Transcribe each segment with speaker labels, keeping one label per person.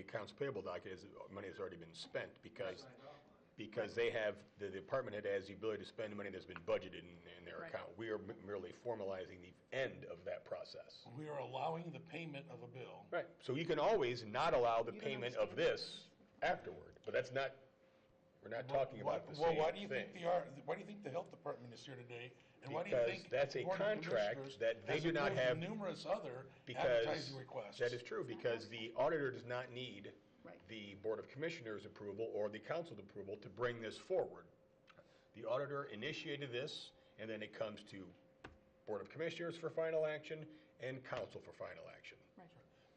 Speaker 1: accounts payable docket is, uh, money has already been spent because,
Speaker 2: Signed off on it.
Speaker 1: because they have, the department head has the ability to spend money that's been budgeted in, in their
Speaker 3: Right.
Speaker 1: account. We are merely formalizing the end of that process.
Speaker 4: We are allowing the payment of a bill.
Speaker 1: Right. So you can always not allow the
Speaker 3: You don't
Speaker 1: payment of
Speaker 3: understand.
Speaker 1: this afterward, but that's not, we're not talking about the
Speaker 4: Well, why do
Speaker 1: same
Speaker 4: you think
Speaker 1: thing.
Speaker 4: the, ar- why do you think the health department is here today? And why do you
Speaker 1: Because
Speaker 4: think
Speaker 1: that's
Speaker 4: the
Speaker 1: a
Speaker 4: Board of
Speaker 1: contract
Speaker 4: Commissioners
Speaker 1: that they
Speaker 4: has
Speaker 1: do not
Speaker 4: approved
Speaker 1: have-
Speaker 4: Numerous other
Speaker 1: Because
Speaker 4: advertising requests.
Speaker 1: That is true, because the auditor does not need
Speaker 3: Right.
Speaker 1: the Board of Commissioners' approval or the council's approval to bring this forward. The auditor initiated this, and then it comes to Board of Commissioners for final action and council for final action.
Speaker 3: Right.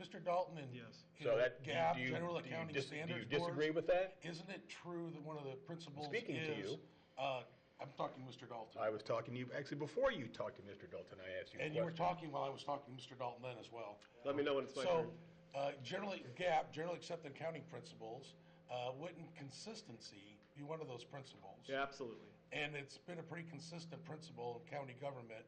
Speaker 4: Mr. Dalton and, you
Speaker 2: Yes.
Speaker 1: So
Speaker 4: know,
Speaker 1: that, do
Speaker 4: GAB,
Speaker 1: you- do you,
Speaker 4: General
Speaker 1: do you
Speaker 4: Accounting
Speaker 1: dis- do you
Speaker 4: Standards Board.
Speaker 1: disagree with that?
Speaker 4: Isn't it true that one of the principles is?
Speaker 1: Speaking to you. Uh,
Speaker 4: uh, I'm talking to Mr. Dalton.
Speaker 1: I was talking to you, actually, before you talked to Mr. Dalton, I asked you a
Speaker 4: And you were
Speaker 1: question.
Speaker 4: talking while I was talking to Mr. Dalton then as well.
Speaker 5: Let me know when it's my
Speaker 4: So,
Speaker 5: turn.
Speaker 4: uh, generally, GAP, generally accepted accounting principles, uh, wouldn't consistency be one of those principles?
Speaker 5: Yeah, absolutely.
Speaker 4: And it's been a pretty consistent principle in county government,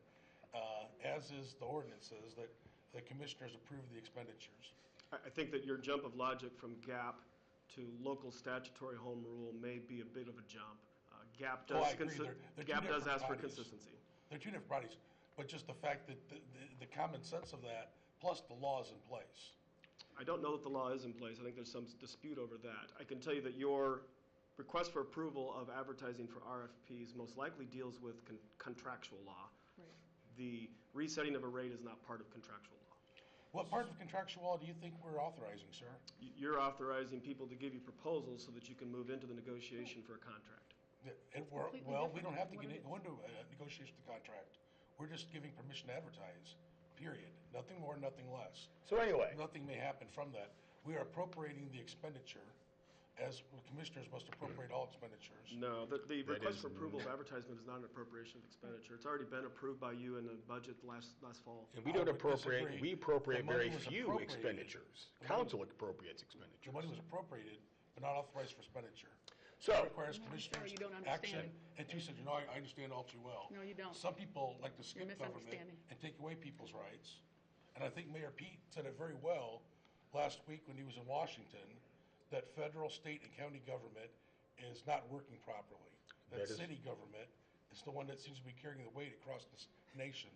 Speaker 4: uh, as is the ordinances, that the commissioners approve the expenditures.
Speaker 5: I, I think that your jump of logic from GAP to local statutory home rule may be a bit of a jump. Uh, GAP
Speaker 4: Oh, I
Speaker 5: does,
Speaker 4: agree.
Speaker 5: consi-
Speaker 4: They're- they're two
Speaker 5: GAP does
Speaker 4: different
Speaker 5: ask for
Speaker 4: bodies.
Speaker 5: consistency.
Speaker 4: They're two different bodies, but just the fact that the, the- the common sense of that, plus the law is in place.
Speaker 5: I don't know that the law is in place. I think there's some dispute over that. I can tell you that your request for approval of advertising for RFPs most likely deals with con- contractual law.
Speaker 3: Right.
Speaker 5: The resetting of a rate is not part of contractual law.
Speaker 4: What part of contractual law do you think we're authorizing, sir?
Speaker 5: Y- You're authorizing people to give you proposals so that you can move into the negotiation for a contract.
Speaker 4: That- and we're-
Speaker 3: Completely
Speaker 4: well, we don't
Speaker 3: different
Speaker 4: have to
Speaker 3: than
Speaker 4: get
Speaker 3: what
Speaker 4: in-
Speaker 3: it
Speaker 4: go into a negotiation of the contract. We're just giving permission to advertise, period. Nothing more, nothing less.
Speaker 1: So anyway.
Speaker 4: Nothing may happen from that. We are appropriating the expenditure, as commissioners must appropriate all expenditures.
Speaker 5: No, the, the request
Speaker 1: is-
Speaker 5: for approval of advertisement is not an appropriation of expenditure. It's already been approved by you in the budget last, last fall.
Speaker 1: And we
Speaker 4: I
Speaker 1: don't
Speaker 4: would
Speaker 1: appropriate,
Speaker 4: disagree.
Speaker 1: we appropriate
Speaker 4: The money
Speaker 1: very
Speaker 4: was
Speaker 1: few
Speaker 4: appropriated.
Speaker 1: expenditures. Council appropriates
Speaker 4: The
Speaker 1: expenditures.
Speaker 4: money was appropriated, but not authorized for expenditure. It
Speaker 1: So,
Speaker 4: requires commissioners'
Speaker 3: you don't understand.
Speaker 4: action. And two said, you know, I I understand all too well.
Speaker 3: No, you don't.
Speaker 4: Some people like to skip
Speaker 3: You're
Speaker 4: government
Speaker 3: misunderstanding.
Speaker 4: and take away people's rights. And I think Mayor Pete said it very well last week when he was in Washington, that federal, state, and county government is not working properly. That
Speaker 1: That is-
Speaker 4: city government is the one that seems to be carrying the weight across this nation.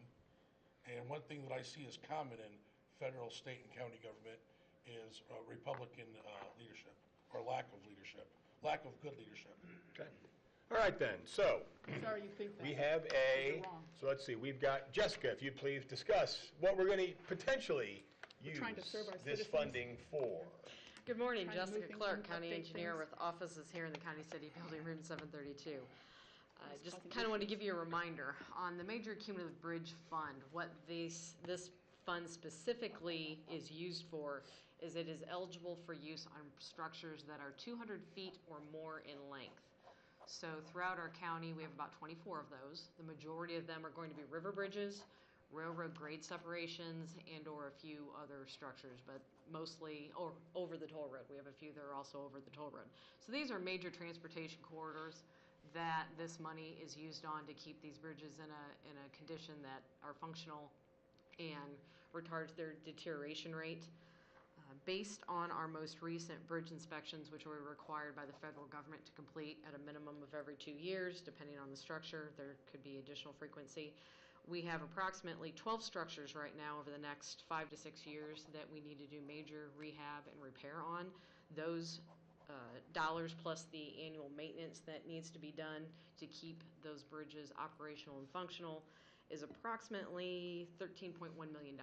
Speaker 4: And one thing that I see is common in federal, state, and county government is uh, Republican uh, leadership, or lack of leadership, lack of good leadership.
Speaker 1: okay. all right then, so
Speaker 3: Sorry you think that.
Speaker 1: we have a,
Speaker 3: You're wrong.
Speaker 1: so let's see, we've got, Jessica, if you'd please discuss what we're going to potentially use
Speaker 3: trying to serve our
Speaker 1: this
Speaker 3: citizens.
Speaker 1: funding for.
Speaker 6: Good morning,
Speaker 3: Trying to move
Speaker 6: Jessica
Speaker 3: things
Speaker 6: Clark,
Speaker 3: and
Speaker 6: County
Speaker 3: update
Speaker 6: Engineer
Speaker 3: things.
Speaker 6: with offices here in the County City Building, Room 732. Uh,
Speaker 3: Nice
Speaker 6: Just
Speaker 3: talking
Speaker 6: kind
Speaker 3: to
Speaker 6: of
Speaker 3: you.
Speaker 6: want to give you a reminder on the Major Cumulative Bridge Fund, what this, this fund specifically is used for is it is eligible for use on structures that are 200 feet or more in length. So throughout our county, we have about 24 of those. The majority of them are going to be river bridges, railroad grade separations, and/or a few other structures, but mostly o- over the toll road. We have a few that are also over the toll road. So these are major transportation corridors that this money is used on to keep these bridges in a, in a condition that are functional and retards their deterioration rate. Uh, Based on our most recent bridge inspections, which were required by the federal government to complete at a minimum of every two years, depending on the structure, there could be additional frequency. We have approximately 12 structures right now over the next five to six years that we need to do major rehab and repair on. Those uh, dollars plus the annual maintenance that needs to be done to keep those bridges operational and functional is approximately $13.1 million.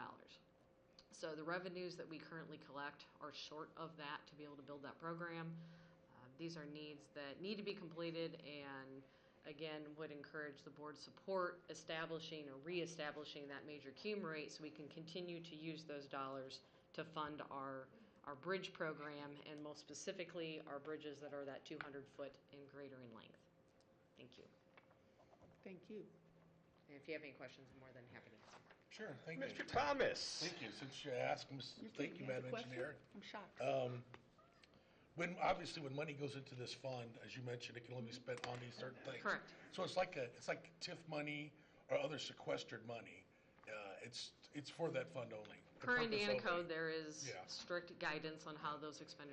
Speaker 6: So the revenues that we currently collect are short of that to be able to build that program. Uh, These are needs that need to be completed and again, would encourage the board's support establishing or reestablishing that major cum rate so we can continue to use those dollars to fund our, our bridge program and most specifically, our bridges that are that 200-foot and greater in length. Thank you.
Speaker 3: Thank you.
Speaker 6: And if you have any questions, I'm more than happy to answer.
Speaker 4: Sure, thank you.
Speaker 1: Mr. Thomas,
Speaker 4: Thank you, since you asked, Ms-
Speaker 3: You're
Speaker 4: thank
Speaker 3: kidding.
Speaker 4: you,
Speaker 3: He has
Speaker 4: Madam
Speaker 3: a question?
Speaker 4: Engineer.
Speaker 3: I'm shocked.
Speaker 4: Um, When, obviously, when money goes into this fund, as you mentioned, it can only be spent on these certain things.
Speaker 6: Correct.
Speaker 4: So it's like a, it's like TIF money or other sequestered money. Uh, It's, it's for that fund only. the
Speaker 6: Per
Speaker 4: purpose
Speaker 6: Indiana
Speaker 4: only.
Speaker 6: code, there is
Speaker 4: Yeah.
Speaker 6: strict guidance on how those expenditures